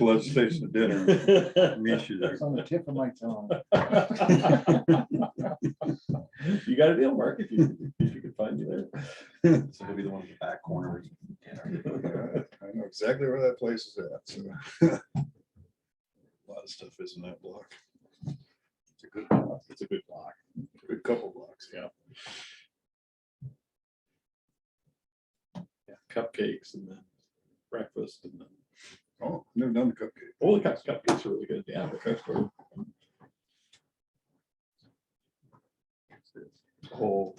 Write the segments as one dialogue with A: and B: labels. A: Let's stay to dinner. Meet you there.
B: It's on the tip of my tongue.
C: You got a deal, Mark, if you, if you could find you there.
D: So he'll be the one in the back corner. dinner.
A: Yeah, I know exactly where that place is at, so. a Lot of stuff is in that block,
C: It's a good, block. it's a good block.
A: a couple blocks.
C: Yeah. Yeah, Cupcakes and then breakfast and then,
A: Oh, never done the cupcake.
C: oh, the cup- cupcakes are really good, yeah.
A: That's good.
C: Whole,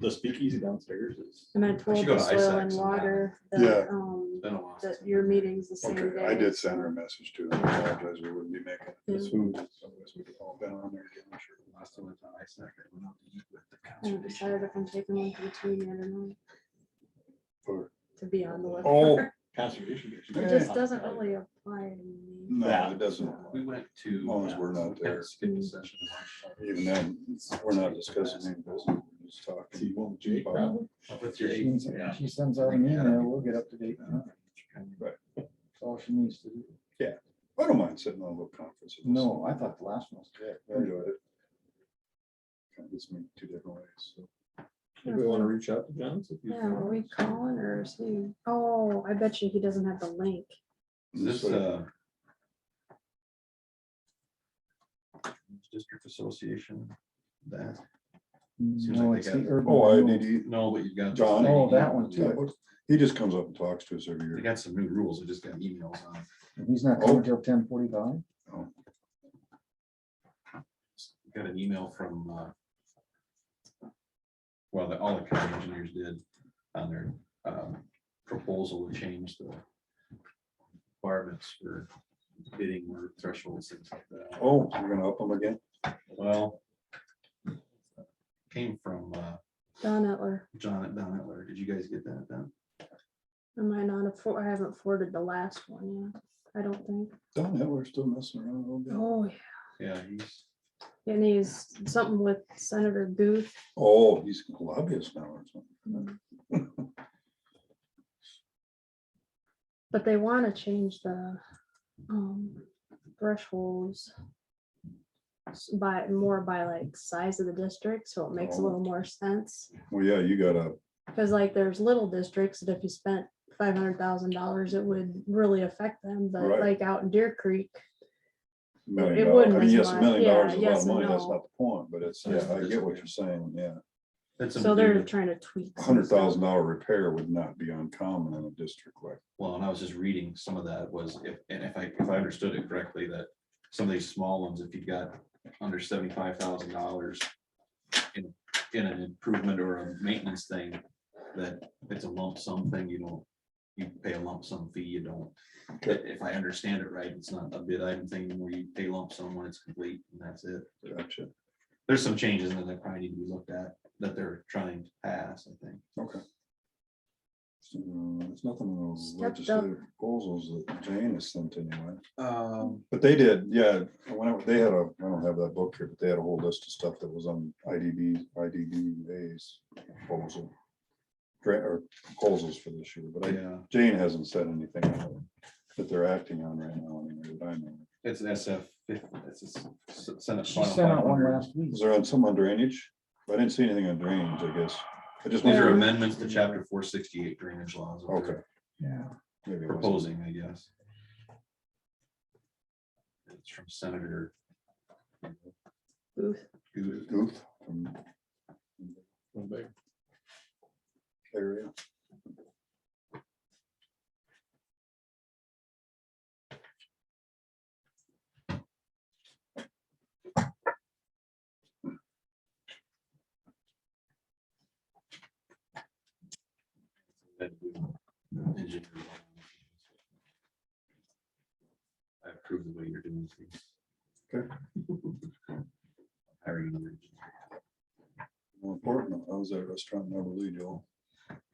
C: the speakeasy downstairs is.
E: And I told
D: go
E: the
D: to
E: soil
D: ISAC
E: and
D: sometime.
E: water
A: Yeah.
E: that, um,
D: Been a while.
E: that your meeting's the same
A: Okay,
E: day.
A: I did send her a message too. I apologize, we wouldn't be making this
E: Yeah.
A: food. Otherwise, we'd have all been on there again, I'm sure.
D: Last time I went to ISAC, I went out to eat with the
E: I haven't
D: conservation.
E: decided if I'm taking one for the team yet or not,
A: For-
E: to be on the list.
A: Oh.
C: Conservation. Commission.
E: It just doesn't really apply to me.
A: No,
C: Yeah.
A: it doesn't.
D: We went to.
A: As long as we're not
D: we kinda
A: there.
D: Skipped a session. to lunch.
A: Even then, we're not discussing any business, we're just
C: See,
A: talking.
C: well, Jake, probably.
D: With your
B: She
D: eight,
B: sends-
D: yeah. Uh-huh.
B: She sends out an email, we'll get up to date. on it.
A: Right.
B: That's all she needs to do.
A: I don't mind sitting on a little conference.
B: No, I thought the last one was good.
A: I Enjoyed it. Kind of gets me two different ways, so.
C: Do we want to reach out to John? see if he's-
E: Yeah, are we calling or is he, oh, I bet you he doesn't have the link.
D: Is this,
A: So-
D: uh? District Association, that, Seems
B: No,
D: like
B: it's
D: they
B: the
D: got-
B: urban.
A: Oh, I
B: renewal.
A: need to,
D: no, but you've got. this
A: John?
D: thing.
B: Oh, that one
A: Yeah,
B: too.
A: what- He just comes up and talks to us every
D: They
A: year.
D: got some new rules, I just got emails on.
B: He's not
A: Oh.
B: coming till ten forty-five.
D: got an email from, uh, well, the, all the county engineers did on their, um, proposal to change the requirements for bidding or thresholds, things like that.
A: Oh, we're gonna up him again?
D: Well, came from, uh,
E: Don Etler,
D: John at Don Etler. Did you guys get that then?
E: am I not, a for- I haven't forwarded the last one yet, I don't think.
A: Don Hitler Oh, still messing around a little bit.
E: Oh,
D: Yeah, he's,
E: yeah, and he's something with Senator Booth.
A: Oh, he's a lobbyist now or something.
E: But they want to change the um, thresholds s- by more by like size of the district, so it
A: Oh.
E: makes a little more sense.
A: Well, yeah, you gotta,
E: Because like there's little districts that if you spent five hundred thousand dollars, it would really affect them, but
A: Right.
E: like out in Deer Creek,
A: million
E: It
A: dollars, I
E: wouldn't
A: mean,
E: as
A: yes, a
E: much.
A: million dollars is a
E: Yeah,
A: lot
E: yes
A: of
E: and
A: money, that's
E: no.
A: not the point, but it's, yeah, I get what you're saying, yeah.
D: that's.
E: so they're trying to tweak. some
A: Hundred
E: stuff.
A: thousand dollar repair would not be uncommon in a district like.
D: Well, and I was just reading some of that was, if, and if I, if I understood it correctly, that some of these small ones, if you got under seventy-five thousand dollars in, in an improvement or a maintenance thing, that it's a lump sum thing, you don't, you pay a lump sum fee, you don't. If if I understand it right, it's not a bid item thing where you pay lump sum when it's complete and that's it.
A: Gotcha.
D: There's some changes in there that probably need to be looked at, that they're trying to pass, I think.
A: Okay. So, uh, There's nothing in those
E: Stepped up.
A: legislative proposals that Jane has sent anyway.
D: Um,
A: But they did, yeah, when I- they had a, I don't have that book here, but they had a whole list of stuff that was on IDB, IDBA's proposal. Grant or proposals for this year, but I,
D: yeah,
A: Jane hasn't said anything about it that they're acting on right now. anyway, that I know.
D: it's an SF, it's a Senate.
B: She
D: Final
B: sent out one
D: 500.
B: last week.
A: Is there on some on drainage? I didn't see anything on drainage, I guess. I just.
D: These are
A: wondered-
D: amendments to chapter four sixty-eight drainage laws. that
A: Okay.
D: they're
B: Yeah.
A: Maybe it wasn't.
D: Proposing, I guess. It's from Senator.
E: Booth.
D: Good.
A: Goof from
C: One big-
A: area.
D: I approve the way you're doing things.
A: Okay.
D: Hiring another engineer.
A: More important, I was at a restaurant in Everly, Joel.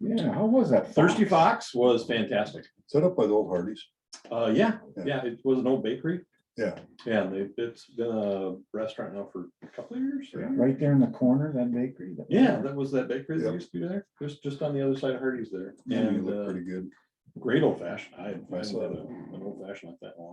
B: Yeah, how was that?
C: Thirsty Fox was fantastic.
A: Set up by the old Hardee's.
C: Uh, yeah,
A: Yeah.
C: yeah, it was an old bakery.
A: Yeah.
C: Yeah, and they, it's been a restaurant now for a couple of years.
A: Yeah.
B: Right there in the corner, that bakery. that-
C: Yeah, that was that bakery that
A: Yep.
C: used to be there, just, just on the other side of Hardee's there.
A: Yeah, you
C: And
A: look
C: uh,
A: pretty good.
C: great old fashioned. I I haven't
A: saw
C: had
A: that.
C: a- an old fashioned like that in a long